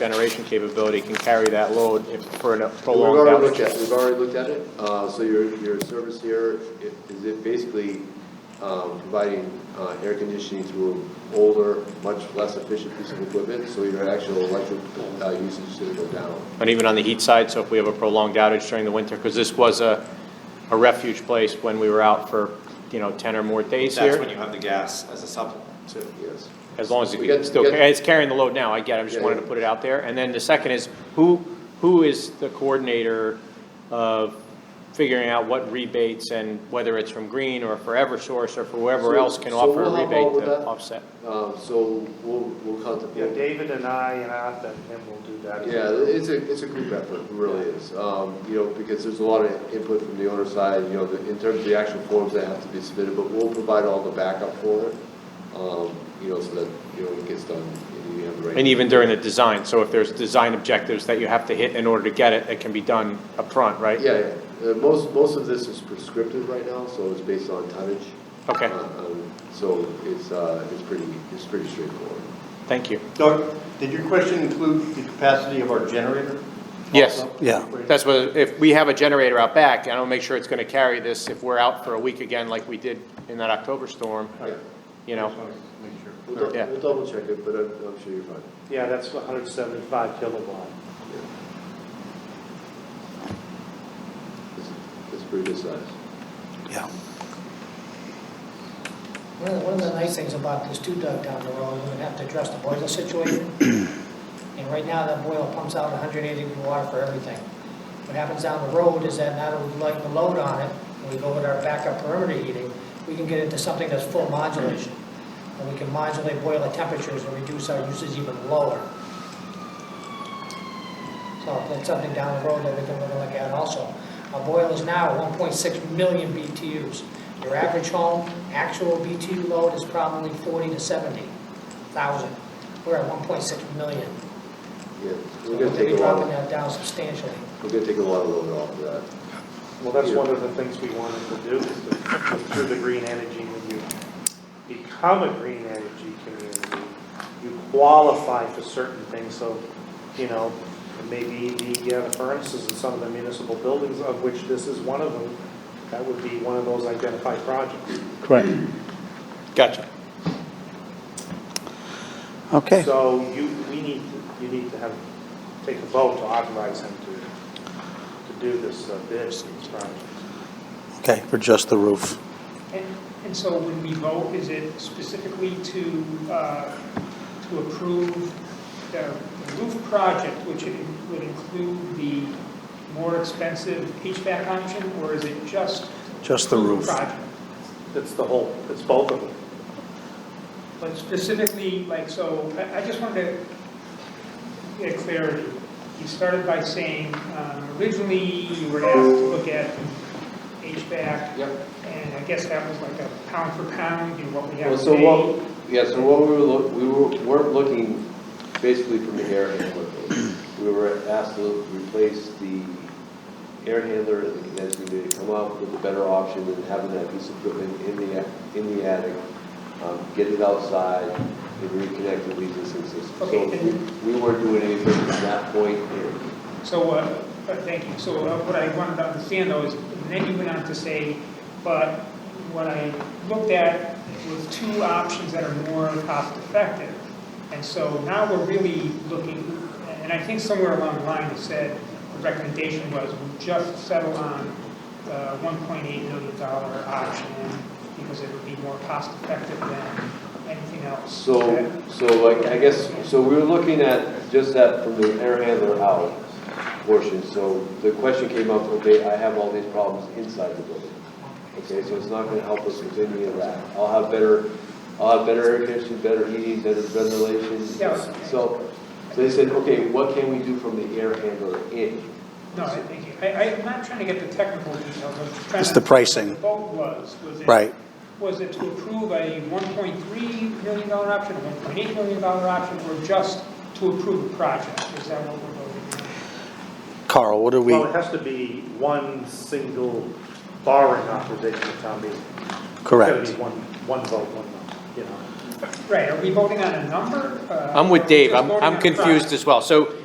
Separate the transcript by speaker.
Speaker 1: generation capability can carry that load if for a
Speaker 2: We've
Speaker 1: prolonged
Speaker 2: already looked at,
Speaker 1: outage.
Speaker 2: we've already looked at it, uh, so your, your service here i- is it basically, um, providing, uh, air conditioning to an older, much less efficient piece of equipment, so your actual electric, uh, usage is gonna go down.
Speaker 1: And even on the heat side, so if we have a prolonged outage during the winter, because this was a, a refuge place when we were out for, you know, ten or more days
Speaker 3: That's when
Speaker 1: here.
Speaker 3: you have the gas as a supplement too.
Speaker 2: Yes.
Speaker 1: As long as
Speaker 2: We got-
Speaker 1: it's still,
Speaker 2: we got-
Speaker 1: it's carrying the load now, I get it, I just
Speaker 2: Yeah,
Speaker 1: wanted to
Speaker 2: yeah.
Speaker 1: put it out there. And then the second is, who, who is the coordinator of figuring out what rebates and whether it's from Green or for Eversource or for whoever
Speaker 2: So-
Speaker 1: else can
Speaker 2: so
Speaker 1: offer a
Speaker 2: we'll help out
Speaker 1: rebate
Speaker 2: with
Speaker 1: to
Speaker 2: that.
Speaker 1: offset?
Speaker 2: Um, so we'll, we'll
Speaker 4: Yeah,
Speaker 2: contemplate.
Speaker 4: David and I and Arthur and him will do that.
Speaker 2: Yeah, it's a, it's a group effort, it really is. Um, you know, because there's a lot of input from the owner side, you know, the- in terms of the actual forms that have to be submitted, but we'll provide all the backup for it. Um, you know, so that, you know, it gets done and you have the right.
Speaker 1: And even during the design, so if there's design objectives that you have to hit in order to get it, it can be done upfront, right?
Speaker 2: Yeah, yeah. Uh, most, most of this is prescriptive right now, so it's based on tonnage.
Speaker 1: Okay.
Speaker 2: Uh, um, So it's, uh, it's pretty, it's pretty straightforward.
Speaker 1: Thank you.
Speaker 5: Doug, did your question include the capacity of our generator?
Speaker 1: Yes.
Speaker 5: also?
Speaker 6: Yeah.
Speaker 1: That's what, if we have a generator out back, I don't make sure it's gonna carry this if we're out for a week again like we did in that October storm,
Speaker 2: Yeah.
Speaker 1: you know?
Speaker 5: Just wanted to make sure.
Speaker 2: We'll dou-
Speaker 1: Yeah.
Speaker 2: we'll double check it, but I'm, I'm sure you're fine.
Speaker 4: Yeah, that's hundred seventy-five kilowatt.
Speaker 2: It's, it's pretty good size.
Speaker 6: Yeah.
Speaker 7: One of the- one of the nice things about this two dug down the road, we would have to address the boiler situation. And right now, that boiler pumps out 180 degree water for everything. What happens down the road is that now that we lighten the load on it, and we go with our backup perimeter heating, we can get into something that's full modulation. And we can modulate boiler temperatures and reduce our usage even lower. So that's something down the road that we can really look at also. Our boiler is now 1.6 million BTUs. Your average home, actual BTU load is probably 40 to 70,000. We're at 1.6 million.
Speaker 2: Yeah, we're
Speaker 7: So we're
Speaker 2: gonna
Speaker 7: going to
Speaker 2: take
Speaker 7: be
Speaker 2: a lot,
Speaker 7: dropping
Speaker 2: of-
Speaker 7: that down substantially.
Speaker 2: we're gonna take a lot of load off of that.
Speaker 4: Well, that's one of the things we wanted to do, is to, through the green energy, when you become a green energy community, you qualify for certain things, so, you know, maybe the uh, furnaces in some of the municipal buildings, of which this is one of them, that would be one of those identified projects.
Speaker 6: Correct.
Speaker 1: Gotcha.
Speaker 6: Okay.
Speaker 4: So you, we need, to- you need to have, take a vote to authorize him to, to do this uh, bid, these projects.
Speaker 6: Okay, for just the roof.
Speaker 8: And, and so when we vote, is it specifically to, uh, to approve the roof project, which it would include the more expensive HVAC option, or is it just?
Speaker 6: Just the roof.
Speaker 8: Project,
Speaker 4: It's the whole, it's both of them.
Speaker 8: but specifically, like, so, I, I just wanted to get clarity. You started by saying, um, originally, you were asked to look at HVAC.
Speaker 2: Yep.
Speaker 8: And I guess that was like a pound for pound, you know, what we have
Speaker 2: Well,
Speaker 8: today.
Speaker 2: so what, yeah, so what we were, look- we were- weren't looking basically from the air handler. thing. We were asked to replace the air handler and the condensing unit, to come up with a better option than having that piece of equipment in the, a- in the attic, um, get it outside, and reconnect the leads and systems. So
Speaker 8: Okay, and-
Speaker 2: we we weren't doing anything from that point here.
Speaker 8: So, uh, uh, thank you. So uh, what I wanted to understand though is, and then you went on to say, but what I looked at was two options that are more cost effective. And so now we're really looking, and I think somewhere along the line it said, the recommendation was we just settle on the $1.8 million dollar option because it would be more cost effective than anything else.
Speaker 2: So,
Speaker 8: Is
Speaker 2: so I I guess, so we were looking at just that from the air handler out portion. So the question came up, okay, I have all these problems inside the building. Okay, so it's not gonna help us with any of that. I'll have better, I'll have better air conditioning, better heating, better ventilation.
Speaker 8: Yeah.
Speaker 2: So, so they said, okay, what can we do from the air handler in?
Speaker 8: that- No, I thank you. I, I'm not trying to get the technical details, I'm just trying to.
Speaker 6: It's the pricing.
Speaker 8: vote was, was it?
Speaker 6: Right.
Speaker 8: Was it to approve a $1.3 million dollar option, a $1.8 million dollar option, or just to approve the project? Is that what we're voting
Speaker 6: Carl, what do we,
Speaker 4: Well, it has to be one single borrowing authorization at town meeting. It's gotta
Speaker 6: correct?
Speaker 4: be one, one vote, one, vote, you know.
Speaker 8: Right, are we voting on a number? Uh,
Speaker 1: I'm with Dave, I'm,
Speaker 8: or just
Speaker 1: I'm
Speaker 8: voting on a price?
Speaker 1: confused as well. So